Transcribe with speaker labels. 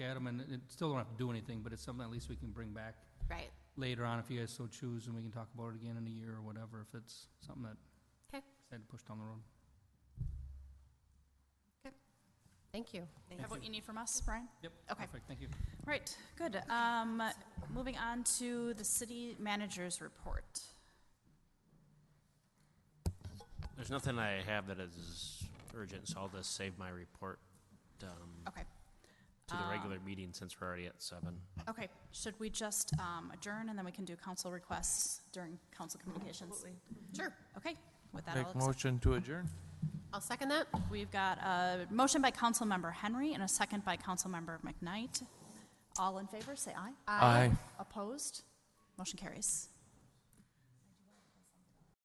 Speaker 1: at them, and it still don't have to do anything, but it's something at least we can bring back
Speaker 2: Right.
Speaker 1: later on if you guys so choose, and we can talk about it again in a year or whatever, if it's something that
Speaker 2: 'Kay.
Speaker 1: had to push down the road.
Speaker 2: Thank you.
Speaker 3: Have what you need from us, Brian?
Speaker 1: Yep.
Speaker 3: Okay.
Speaker 1: Perfect, thank you.
Speaker 3: Right, good. Um, moving on to the city manager's report.
Speaker 4: There's nothing I have that is urgent, so I'll just save my report um,
Speaker 3: Okay,
Speaker 4: to the regular meeting since we're already at seven.
Speaker 3: okay. Should we just um, adjourn and then we can do council requests during council communications? Sure, okay. With that, I'll
Speaker 5: Make
Speaker 3: accept.
Speaker 5: motion to adjourn?
Speaker 2: I'll second that.
Speaker 3: We've got a motion by council member Henry and a second by council member McKnight. All in favor, say aye.
Speaker 5: Aye.
Speaker 3: Opposed? Motion carries.